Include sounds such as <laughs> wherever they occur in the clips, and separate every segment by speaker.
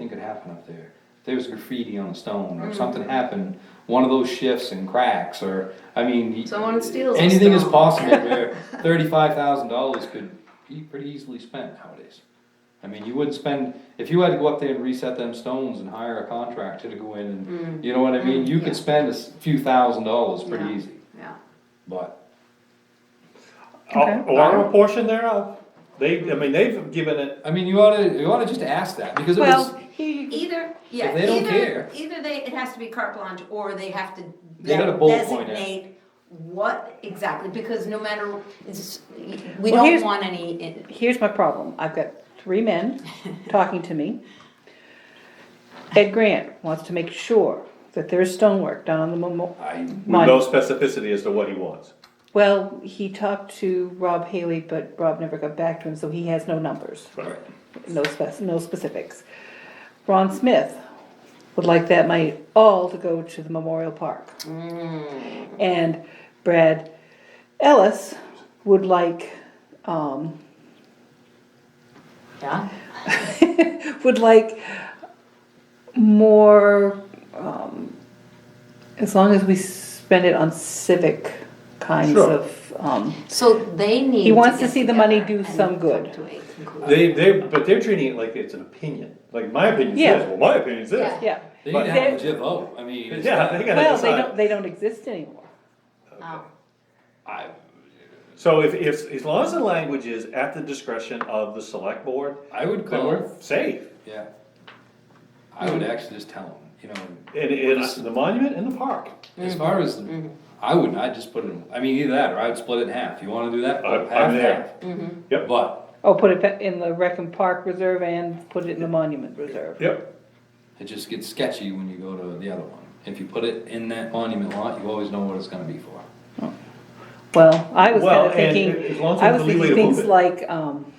Speaker 1: happen up there. If there was graffiti on a stone
Speaker 2: Mm.
Speaker 1: or something happened, one of those shifts and cracks or, I mean. y-
Speaker 2: Someone steals a
Speaker 1: Anything is
Speaker 2: stone. <laughs>
Speaker 1: possible where thirty-five thousand dollars could be pretty easily spent nowadays. I mean, you wouldn't spend, if you had to go up there and reset them stones and hire a contractor to go in and, you know what I mean? You
Speaker 2: Mm. yeah.
Speaker 1: could spend a s- few thousand dollars pretty
Speaker 2: Yeah,
Speaker 1: easy,
Speaker 2: Yeah,
Speaker 1: but.
Speaker 3: Uh, Or a portion thereof. They, I mean, they've given it,
Speaker 1: I mean, you oughta, you oughta just ask that, because it was,
Speaker 4: Well, he,
Speaker 5: Either, yeah,
Speaker 1: they don't
Speaker 5: either,
Speaker 1: care.
Speaker 5: either they, it has to be carte blanche, or they have to
Speaker 1: They got a bullet point there.
Speaker 5: designate what exactly, because no matter, it's- we
Speaker 4: Well,
Speaker 5: don't
Speaker 4: here's-
Speaker 5: want any, in-
Speaker 4: here's my problem. I've got three
Speaker 1: <laughs>
Speaker 4: men talking to me. Ed Grant wants to make sure that there's stonework done on the memorial.
Speaker 1: I,
Speaker 3: with no specificity as to what he wants.
Speaker 4: Well, he talked to Rob Haley, but Rob never got back to him, so he has no numbers,
Speaker 1: right,
Speaker 4: no spec, no specifics. Ron Smith would like that money all to go to the memorial park.
Speaker 1: Mm.
Speaker 4: And Brad Ellis would like, um,
Speaker 5: yeah,
Speaker 4: would like more, um, as long as we spend it on civic kinds
Speaker 3: Sure.
Speaker 4: of, um,
Speaker 5: so they need.
Speaker 4: wants
Speaker 5: get
Speaker 4: to see the money
Speaker 5: together
Speaker 4: do
Speaker 5: and
Speaker 4: some
Speaker 5: come
Speaker 4: good.
Speaker 5: to a conclusion.
Speaker 3: They, they, but they're treating it like it's an opinion, like my opinion
Speaker 4: Yeah.
Speaker 3: says, well, my opinion says.
Speaker 4: yeah.
Speaker 1: they need
Speaker 3: But-
Speaker 1: to have a legit vote, I mean. it's not-
Speaker 3: <laughs> Yeah, they gotta
Speaker 4: Well, they
Speaker 3: decide.
Speaker 4: don't, they don't exist anymore.
Speaker 5: Oh.
Speaker 1: I,
Speaker 3: So if, if, as long as the language is at the discretion of the select board,
Speaker 1: I would
Speaker 3: then
Speaker 1: call,
Speaker 3: we're safe.
Speaker 1: yeah. I would actually just tell them, you know,
Speaker 3: And, and the monument and the park.
Speaker 1: as far as, I wouldn't, I'd just put it, in- I mean, either that, or I'd split it in half, you wanna do that?
Speaker 3: I-
Speaker 1: half,
Speaker 3: I'm there.
Speaker 1: half.
Speaker 3: Yep.
Speaker 1: But,
Speaker 4: Oh, put it ba- in the Rec and Park Reserve and put it in the Monument Reserve.
Speaker 3: Yep.
Speaker 1: it just gets sketchy when you go to the other one, if you put it in that monument lot, you always know what it's gonna be for.
Speaker 4: Well, I was
Speaker 3: Well,
Speaker 4: kinda
Speaker 3: and as
Speaker 4: thinking,
Speaker 3: long as
Speaker 4: I
Speaker 3: there's
Speaker 4: was
Speaker 3: a leeway
Speaker 4: thinking
Speaker 3: to move
Speaker 4: things
Speaker 3: it.
Speaker 4: like, um,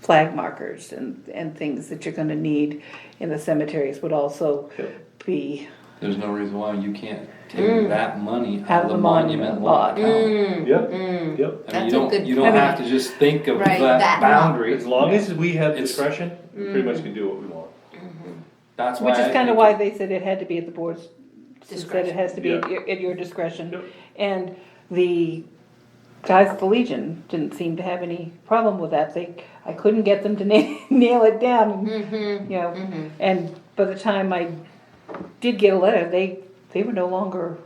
Speaker 4: flag markers and, and things that you're gonna need in the cemeteries would also
Speaker 3: Yep.
Speaker 4: be,
Speaker 1: There's no reason why you can't take that money out of the monument
Speaker 4: monument
Speaker 1: lot
Speaker 4: lot.
Speaker 1: account.
Speaker 5: Mm,
Speaker 3: Yep,
Speaker 1: I
Speaker 3: yep.
Speaker 1: mean, you
Speaker 5: That's a
Speaker 1: don't,
Speaker 5: good
Speaker 1: you don't
Speaker 4: point.
Speaker 1: have to just think of
Speaker 5: Right,
Speaker 1: that
Speaker 5: that lot.
Speaker 1: boundary.
Speaker 3: As long as we have
Speaker 1: It's-
Speaker 3: discretion, we pretty much can do what we want.
Speaker 1: That's why.
Speaker 4: which
Speaker 1: I
Speaker 4: is kinda
Speaker 1: think
Speaker 4: why
Speaker 1: it-
Speaker 4: they said it had to be at the board's, said it
Speaker 5: Discretion.
Speaker 4: has to be at
Speaker 3: Yeah.
Speaker 4: your, at your discretion.
Speaker 3: Yep.
Speaker 4: And the guys at the Legion didn't seem to have any problem with that, they, I couldn't get them to <laughs> nail, nail it down.
Speaker 2: Mm-hmm,
Speaker 4: You know, and by the time I did get a letter, they, they were no longer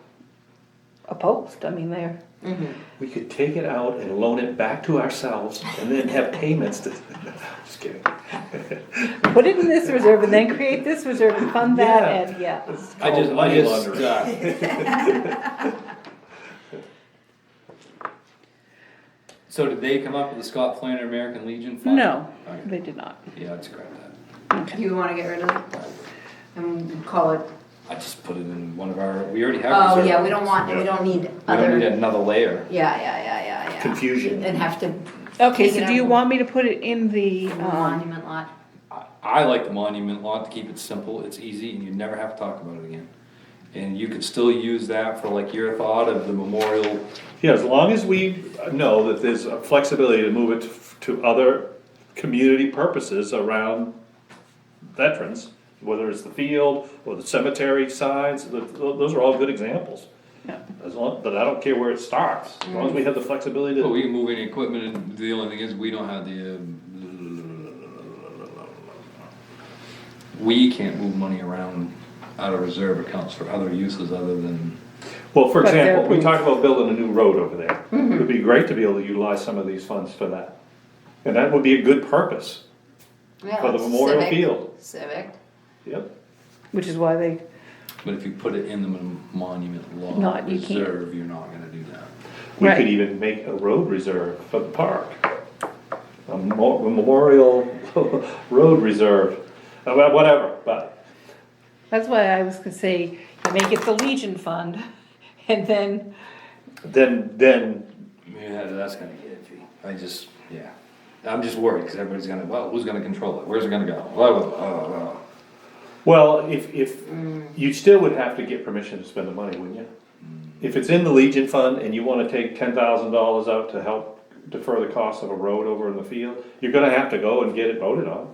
Speaker 4: opposed, I mean, they're,
Speaker 5: mm-hmm.
Speaker 3: We could take it out and loan it back to ourselves and then have payments to, <laughs> just kidding.
Speaker 4: put it in this reserve and then create this reserve and fund that,
Speaker 3: Yeah.
Speaker 4: and yeah.
Speaker 3: It's
Speaker 1: I just,
Speaker 3: called
Speaker 1: I
Speaker 3: money
Speaker 1: just,
Speaker 3: laundering.
Speaker 1: uh. <laughs> So did they come up with the Scott Flanner American Legion fund?
Speaker 4: No,
Speaker 1: Okay.
Speaker 4: they did not.
Speaker 1: Yeah, I'd scrap that.
Speaker 2: you wanna get rid of it and call it,
Speaker 1: I just put it in one of our, we already have.
Speaker 2: oh,
Speaker 1: reserve.
Speaker 2: yeah, we don't want,
Speaker 3: Yeah.
Speaker 2: we don't need
Speaker 1: We don't
Speaker 2: other,
Speaker 1: need
Speaker 2: yeah,
Speaker 1: another layer.
Speaker 2: yeah, yeah, yeah, yeah.
Speaker 3: Confusion.
Speaker 2: And have to,
Speaker 4: Okay,
Speaker 2: Take it
Speaker 4: so do you
Speaker 2: out.
Speaker 4: want me to put it in the, um,
Speaker 2: monument lot,
Speaker 1: I, I like the monument lot to keep it simple, it's easy, and you never have to talk about it again. And you could still use that for like your thought of the memorial,
Speaker 3: Yeah, as long as we know that there's a flexibility to move it to to other community purposes around veterans, whether it's the field or the cemetery signs, th- th- those are all good examples.
Speaker 4: Yeah. Mm.
Speaker 3: As long, but I don't care where it starts, as long as we have the flexibility
Speaker 1: but
Speaker 3: to,
Speaker 1: we can move any equipment, and the only thing is, we don't have the. um, We can't move money around out of reserve accounts for other uses other than,
Speaker 3: well, for
Speaker 4: But Mm-hmm. they're
Speaker 3: example, we
Speaker 4: approved.
Speaker 3: talked about building a new road over there. It would be great to be able to utilize some of these funds for that. And that would be a good purpose.
Speaker 2: yeah.
Speaker 3: For the
Speaker 2: it's
Speaker 3: memorial
Speaker 2: civic-
Speaker 3: field.
Speaker 2: Civic,
Speaker 3: Yep,
Speaker 4: which is why they,
Speaker 1: but if you put it in the mon- monument law
Speaker 4: Not- you can't.
Speaker 1: reserve, you're not gonna do that.
Speaker 3: we
Speaker 4: Right.
Speaker 3: could even make a road reserve for the park. A mo- a memorial <laughs> road reserve, Uh, well, whatever, but,
Speaker 4: that's why I was gonna say, you make it the Legion Fund, <laughs> and then,
Speaker 3: then, then,
Speaker 1: Yeah, that's gonna get iffy, I just, yeah, I'm just worried, cause everybody's gonna, well, who's gonna control it, where's it gonna go, blah, blah, blah, blah, blah.
Speaker 3: well, if, if, you still would have to get permission to spend the money, wouldn't you? If it's in the Legion Fund and you wanna take ten thousand dollars out to help defer the cost of a road over in the field, you're gonna have to go and get it voted on.